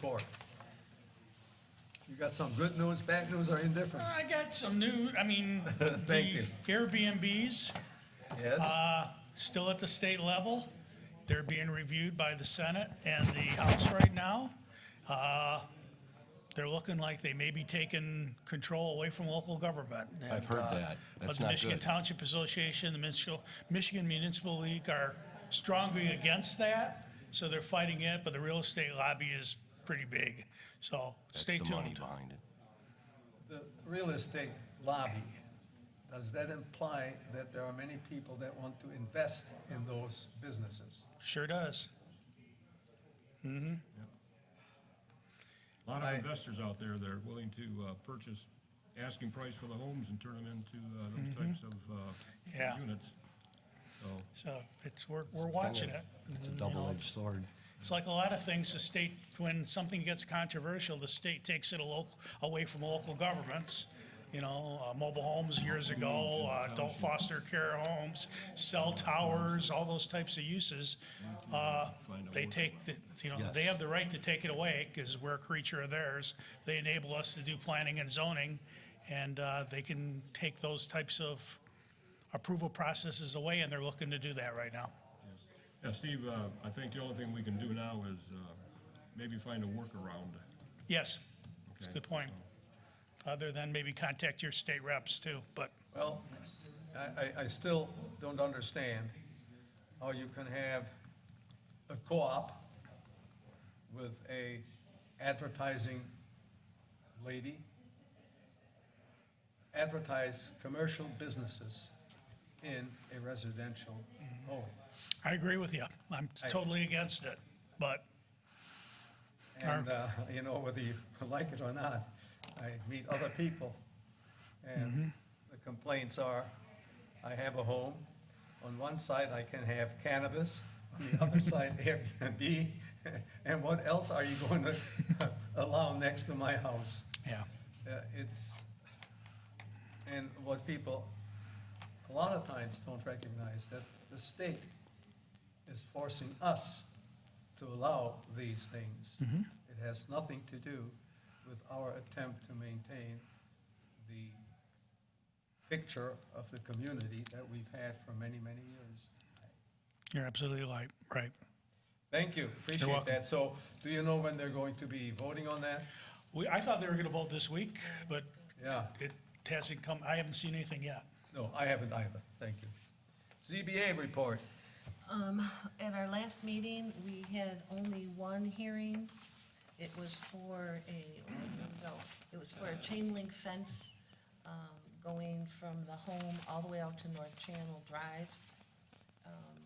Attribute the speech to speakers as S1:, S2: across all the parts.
S1: Board. You got some good news, bad news, or indifferent?
S2: I got some new, I mean,
S1: Thank
S2: the
S1: you.
S2: Airbnbs,
S1: Yes?
S2: uh, still at the state level. They're being reviewed by the Senate and the House right now. Uh, They're looking like they may be taking control away from local government.
S3: I've heard
S2: And, uh,
S3: that.
S2: But
S3: That's
S2: the
S3: not
S2: Michigan
S3: good.
S2: Township Association, the Michigan, Michigan Municipal League are strongly against that. So they're fighting it, but the real estate lobby is pretty big. So
S3: That's
S2: stay
S3: the money
S2: tuned.
S3: behind it.
S1: The real estate lobby, does that imply that there are many people that want to invest in those businesses?
S2: Sure does.
S4: A lot of
S1: I-
S4: investors out there that are willing to uh, purchase asking price for the homes and turn them into uh, those types of
S2: Mm-hmm. Yeah.
S4: uh, units. So,
S2: So it's, we're, we're watching it.
S3: It's a
S2: and, you know,
S3: double-edged sword.
S2: It's like a lot of things, the state, when something gets controversial, the state takes it a local, away from local governments. You know, uh, mobile homes years ago, uh, adult foster care homes, cell towers, all those types of uses. Uh, they take, the- you know, they
S3: Yes.
S2: have the right to take it away because we're a creature of theirs. They enable us to do planning and zoning and, uh, they can take those types of approval processes away and they're looking to do that right now.
S4: yeah, Steve, uh, I think the only thing we can do now is uh, maybe find a workaround.
S2: Yes,
S4: Okay.
S2: good point. Other than maybe contact your state reps too, but
S1: Well, I, I, I still don't understand how you can have a co-op with a advertising lady advertise commercial businesses in a residential home.
S2: I agree with you. I'm
S1: I-
S2: totally against it, but
S1: And, uh, you know, whether you like it or not, I meet other people. And the complaints are, I have a home. On one side, I can have cannabis. On the other side, Airbnb. And what else are you going to allow next to my house?
S2: yeah,
S1: Uh, It's, and what people, a lot of times don't recognize that the state is forcing us to allow these things. It has nothing to do with our attempt to maintain the picture of the community that we've had for many, many years.
S2: you're absolutely right, right.
S1: Thank you, appreciate
S2: welcome.
S1: that. So do you know when they're going to be voting on that?
S2: We, I thought they were gonna vote this week, but
S1: Yeah.
S2: it hasn't come, I haven't seen anything yet.
S1: No, I haven't either, thank you. ZBA report.
S5: At our last meeting, we had only one hearing. It was for a, no, it was for a chain link fence um, going from the home all the way out to North Channel Drive. Um,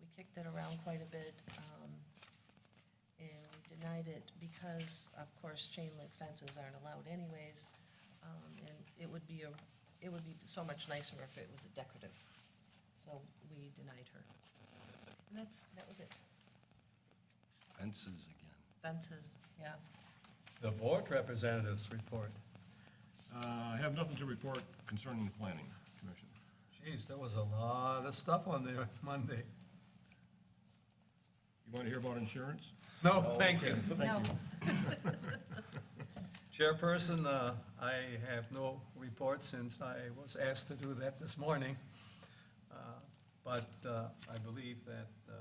S5: We kicked it around quite a bit, um, and we denied it because, of course, chain link fences aren't allowed anyways. Um, And it would be, a it would be so much nicer if it was a decorative. So we denied her. And that's, that was it.
S3: Fences again.
S5: Fences, yeah.
S1: The board representatives report.
S4: Uh, I have nothing to report concerning the planning commission.
S1: Jeez, there was a lot of stuff on there Monday.
S4: You want to hear about insurance?
S1: No, thank you.
S5: No,
S1: Chairperson, uh, I have no report since I was asked to do that this morning. Uh, But uh, I believe that uh,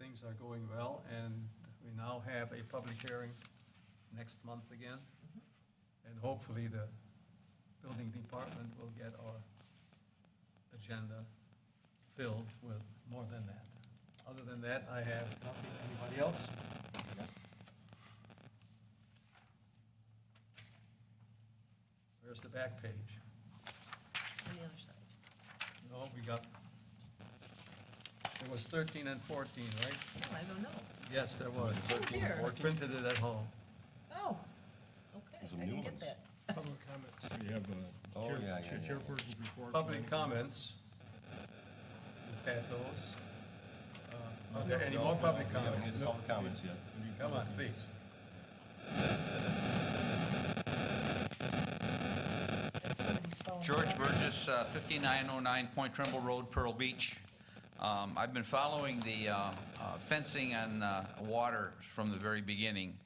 S1: things are going well, and we now have a public hearing next month again. And hopefully, the building department will get our agenda filled with more than that. Other than that, I have nothing. Anybody else? Where's the back page?
S5: on the other side.
S1: No, Oh, we got, it was 13 and 14, right?
S5: No, Oh, I don't know.
S1: Yes, there was.
S5: 13 and Here. 14?
S1: Printed it at home.
S5: Oh,
S3: Those are
S5: okay, I didn't
S3: new
S5: get
S3: ones.
S5: that.
S4: Public comments. You have
S3: Oh,
S4: a
S3: yeah, yeah,
S4: chair-
S3: yeah.
S4: chairperson's report.
S1: Public comments. We've had those. Uh, Are there any more public
S3: We haven't
S1: comments?
S3: hit all the comments yet.
S1: Come on, please.
S5: That's somebody's phone.
S6: George Burgess, uh, 5909 Point Trumbull Road, Pearl Beach. Um, I've been following the uh, uh, fencing on uh, water from the very beginning.